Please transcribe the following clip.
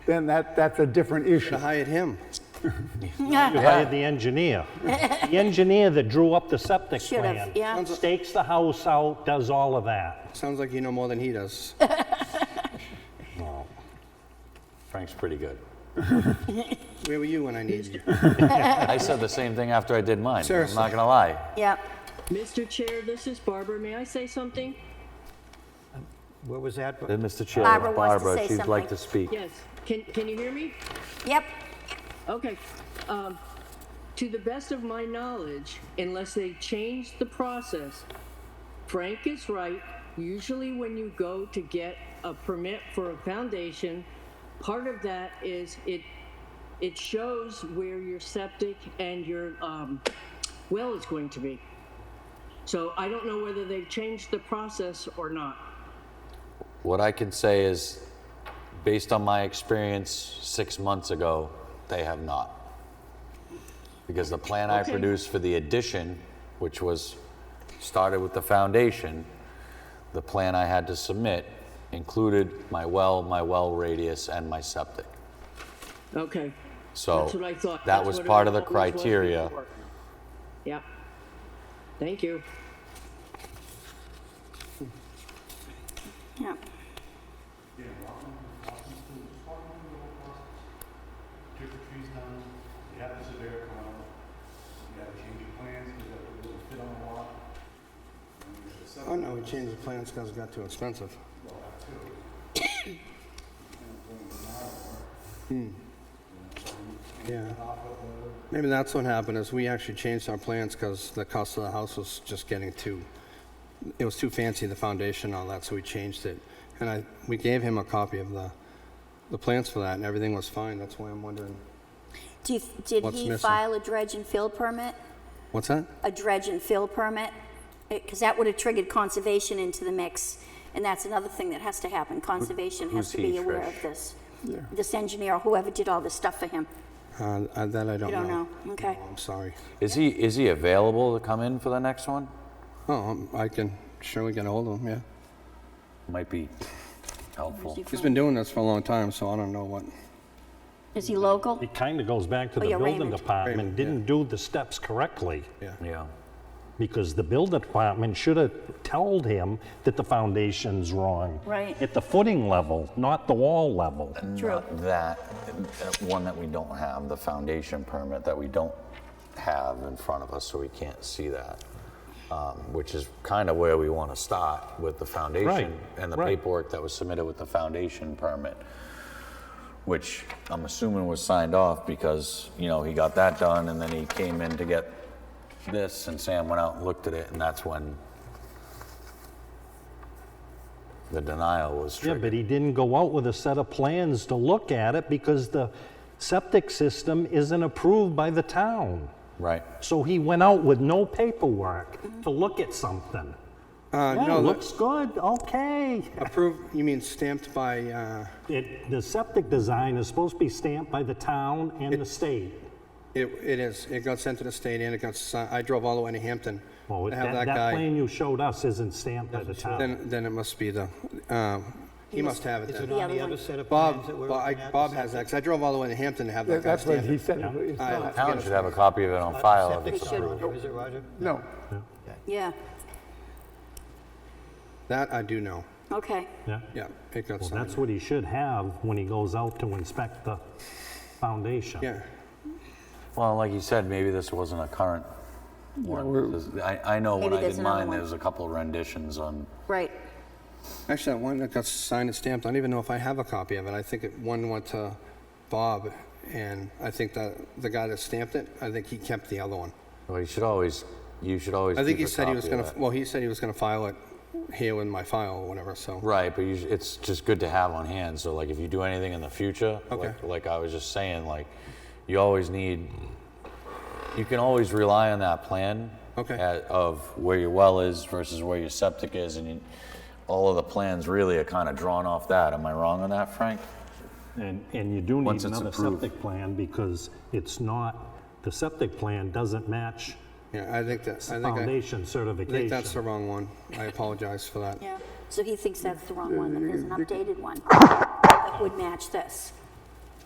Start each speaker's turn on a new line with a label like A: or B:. A: then that, that's a different issue.
B: I hired him.
C: You hired the engineer. The engineer that drew up the septic
D: Should have,
C: plan.
D: yeah.
C: Stakes the house out, does all of that.
B: Sounds like you know more than he does.
E: Frank's pretty good.
B: Where were you when I needed you?
E: I said the same thing after I did mine. I'm
B: Seriously.
E: not gonna lie.
D: Yep.
F: Mr. Chair, this is Barbara. May I say something?
C: Where was that?
E: Uh, Mr. Chair,
D: Barbara wants to
E: Barbara,
D: say
E: she'd like
D: something.
E: to speak.
F: Yes. Can, can you hear me?
D: Yep.
F: Okay. Um, to the best of my knowledge, unless they change the process, Frank is right. Usually, when you go to get a permit for a foundation, part of that is it it shows where your septic and your um, well is going to be. So I don't know whether they've changed the process or not.
E: What I can say is, based on my experience six months ago, they have not. Because the plan I
F: Okay.
E: produced for the addition, which was started with the foundation, the plan I had to submit included my well, my well radius, and my septic.
F: Okay.
E: So
F: That's what I thought.
E: that
F: That's
E: was
F: what it
E: part of the
F: always was
E: criteria.
F: before. Yep. Thank you.
D: Yep.
G: took the trees down, you have the surveyor come out, you gotta change your plans, you gotta put a little fit on the lot.
B: Oh, no, we changed the plans because it got too expensive. Hmm. Yeah. Maybe that's what happened, is we actually changed our plans because the cost of the house was just getting too, it was too fancy, the foundation and all that, so we changed it. And I, we gave him a copy of the, the plans for that, and everything was fine, that's why I'm wondering.
D: Do you, did
B: What's
D: he
B: missing?
D: file a dredge and fill permit?
B: What's that?
D: A dredge and fill permit? Because that would have triggered conservation into the mix. And that's another thing that has to happen. Conservation has
E: who's
D: to be
E: he,
D: aware
E: Trish?
D: of this. This engineer, whoever did all this stuff for him.
B: Uh, uh, That I don't know.
D: You don't know, okay.
B: No, I'm sorry.
E: Is he, is he available to come in for the next one?
B: Oh, um, I can, sure we can hold him, yeah.
E: Might be helpful.
B: He's been doing this for a long time, so I don't know what. Uh,
D: Is he local?
C: It kind of goes back to
D: Oh,
C: the
D: yeah,
C: building
D: Raymond.
C: department,
B: Raymond, yeah.
C: didn't do the steps correctly.
E: Yeah.
C: Because the building department should have told him that the foundation's wrong.
D: Right.
C: At the footing level, not the wall level.
D: True.
E: That, that one that we don't have, the foundation permit that we don't have in front of us, so we can't see that. Um, which is kind of where we want to start with the foundation
C: Right,
E: and the
C: right.
E: paperwork that was submitted with the foundation permit, which I'm assuming was signed off because you know he got that done and then he came in to get this and Sam went out and looked at it and that's when the denial was
C: Yeah,
E: triggered.
C: but he didn't go out with a set of plans to look at it because the septic system isn't approved by the town.
E: right.
C: So he went out with no paperwork to look at something.
B: Uh,
C: Yeah,
B: no, the-
C: looks good, okay.
B: approved, you mean stamped by, uh,
C: It, the septic design is supposed to be stamped by the town and the state.
B: it, it is, it got sent to the state and it got, si- I drove all the way to Hampton.
C: Well,
B: to have
C: that, uh, that
B: guy.
C: plan you showed us isn't stamped by the town.
B: Then, then it must be the, um, he must have it
H: Is it
B: then.
D: The
H: on
D: other
H: the other
D: one.
H: set of
B: Bob,
H: plans that we're
B: Bob- I-
H: looking at?
B: Bob has that, 'cause I drove all the way to Hampton to have that guy
A: That's what
B: stamp
A: he
B: it.
A: said. It's
B: I-
A: not-
E: Town should have a copy of it on file if
H: Septic
E: it's
D: They should.
H: system,
E: approved.
H: Roger, Is it Roger?
A: No,
D: Yeah,
B: That I do know,
D: okay.
C: Yeah.
B: yeah, it got
C: Well,
B: signed,
C: that's what he should have when he goes out to inspect the foundation.
B: yeah.
E: Well, like you said, maybe this wasn't a current one. This is- I, I know when
D: Maybe
E: I did
D: there's another
E: mine,
D: one.
E: there was a couple of renditions on,
D: Right.
B: Actually, that one that got signed and stamped, I don't even know if I have a copy of it, I think it, one went to Bob, and I think that, the guy that stamped it, I think he kept the other one.
E: well, you should always, you should always
B: I think he
E: keep a
B: said he was
E: copy
B: gonna,
E: of that.
B: well, he said he was gonna file it here in my file or whatever, so.
E: Right, but you, sh- it's just good to have on hand, so like if you do anything in the future,
B: Okay.
E: like, like I was just saying, like, you always need, you can always rely on that plan.
B: Okay.
E: at- Of where your well is versus where your septic is, and you, all of the plans really are kind of drawn off that. Am I wrong on that, Frank?
C: And, and you do need
E: Once it's
C: another
E: approved.
C: septic plan because it's not, the septic plan doesn't match
B: Yeah, I think that, I think I, I
C: foundation
B: think that's the
C: certification.
B: wrong one. I apologize for that.
D: Yeah. So he thinks that's the wrong one, that there's an updated one that would match this.